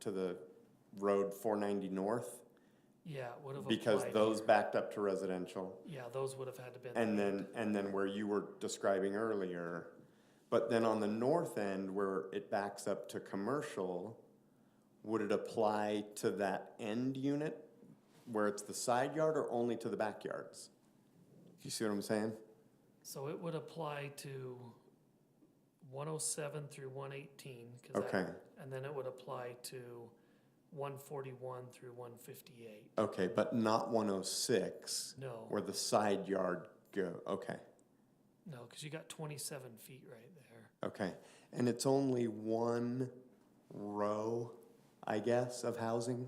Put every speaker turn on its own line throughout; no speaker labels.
to the road four ninety north,
Yeah, it would have applied.
because those backed up to residential.
Yeah, those would have had to been.
And then, and then where you were describing earlier, but then on the north end where it backs up to commercial, would it apply to that end unit where it's the side yard or only to the backyards? You see what I'm saying?
So it would apply to one oh seven through one eighteen.
Okay,
And then it would apply to one forty-one through one fifty-eight.
okay, but not one oh six
No,
where the side yard go, okay,
no, because you got twenty-seven feet right there.
okay. And it's only one row, I guess, of housing,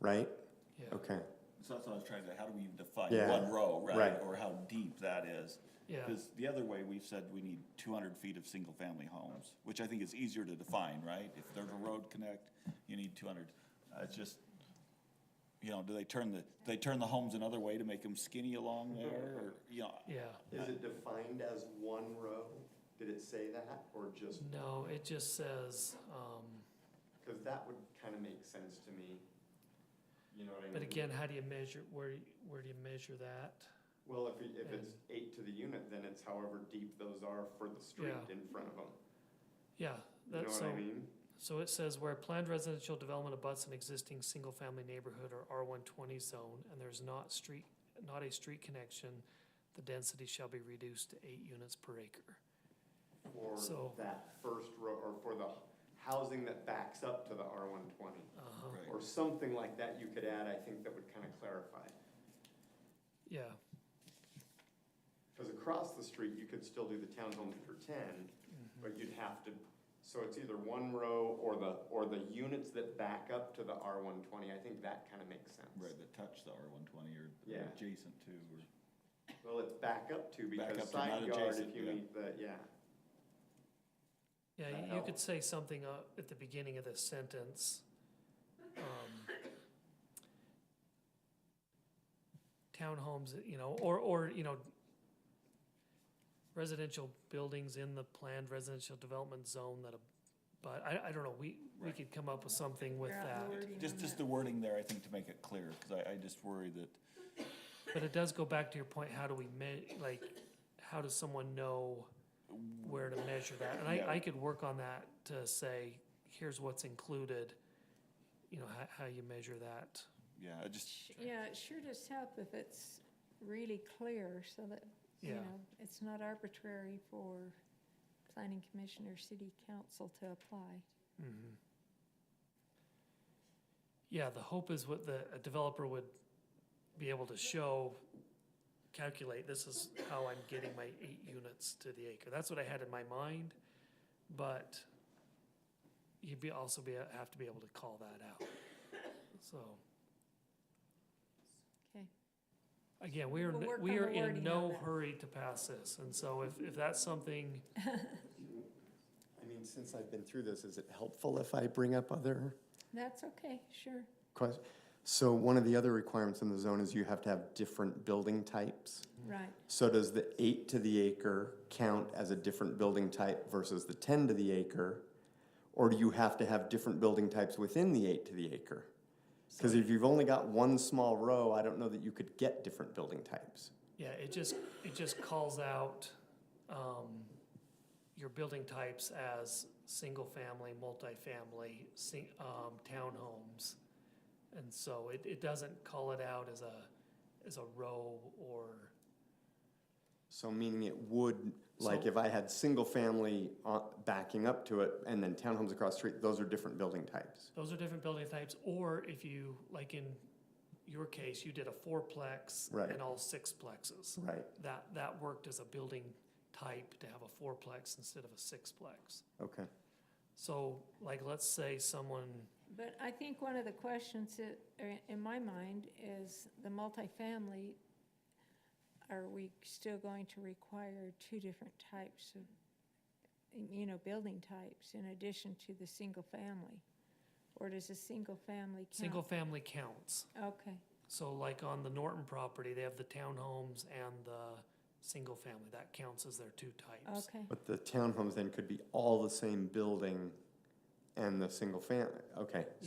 right?
Mm-hmm. Yeah,
Okay.
So that's what I was trying to, how do we define
Yeah.
one row, right?
Right.
Or how deep that is?
yeah,
Because the other way, we've said we need two hundred feet of single-family homes, which I think is easier to define, right? If there's a road connect, you need two hundred. Uh, It's just, you know, do they turn the, do they turn the homes another way to make them skinny along there? Or, you know,
yeah.
Is it defined as one row? Did it say that, or just,
No, it just says, um,
because that would kind of make sense to me. You know what I mean?
but again, how do you measure, where, where do you measure that?
Well, if, it- if it's eight to the unit, then it's however deep those are for the street
Yeah.
in front of them.
Yeah,
You know
that's
what
so.
I mean?
So it says where planned residential development abuts an existing single-family neighborhood or R one twenty zone, and there's not street, not a street connection, the density shall be reduced to eight units per acre.
For
So-
that first row, or for the housing that backs up to the R one twenty,
Uh-huh,
Right.
or something like that you could add, I think that would kind of clarify.
yeah,
Because across the street, you could still do the townhomes for ten,
Mm-hmm.
but you'd have to, so it's either one row or the, or the units that back up to the R one twenty, I think that kind of makes sense.
right, that touch the R one twenty or
Yeah.
adjacent to, or,
Well, it's back up to, because
Back up to, not
side yard, if
adjacent,
you
yeah.
meet the, yeah, That
yeah, you- you could
helps.
say something uh, at the beginning of this sentence. um, Townhomes, you know, or, or, you know, residential buildings in the planned residential development zone that, ab- but I, I don't know, we, we
Right.
could come up with something with
Figure
that.
out the wording
just,
on
just
that.
the wording there, I think, to make it clear, because I, I just worry that,
But it does go back to your point, how do we me- like, how does someone know where to measure that? And I,
Yeah.
I could work on that to say, here's what's included, you know, how, how you measure that.
yeah, I just,
Sh- Yeah, it sure does help if it's really clear so that, you
Yeah.
know, it's not arbitrary for planning commission or city council to apply.
Mm-hmm. Yeah, the hope is what the, a developer would be able to show, calculate, this is how I'm getting my eight units to the acre. That's what I had in my mind, but you'd be, also be, have to be able to call that out. So,
Okay,
again, we are,
We'll work
we
on
are
the
in
wording on
no
that.
hurry to pass this, and so if, if that's something,
I mean, since I've been through this, is it helpful if I bring up other
that's okay, sure.
questions? So one of the other requirements in the zone is you have to have different building types.
Mm.
Right,
So does the eight to the acre count as a different building type versus the ten to the acre? Or do you have to have different building types within the eight to the acre? Because if you've only got one small row, I don't know that you could get different building types.
yeah, it just, it just calls out, um, your building types as single-family, multifamily, sing, um, townhomes. And so it, it doesn't call it out as a, as a row or,
So meaning it would, like
So-
if I had single family on- backing up to it and then townhomes across the street, those are different building types.
those are different building types, or if you, like in your case, you did a fourplex
Right.
and all sixplexes.
Right,
that, that worked as a building type to have a fourplex instead of a sixplex.
okay.
So like, let's say someone,
but I think one of the questions that, are in my mind, is the multifamily, are we still going to require two different types of, you know, building types in addition to the single family? Or does a single family count?
single family counts.
Okay,
So like on the Norton property, they have the townhomes and the single family. That counts as their two types.
okay,
But the townhomes then could be all the same building and the single family, okay.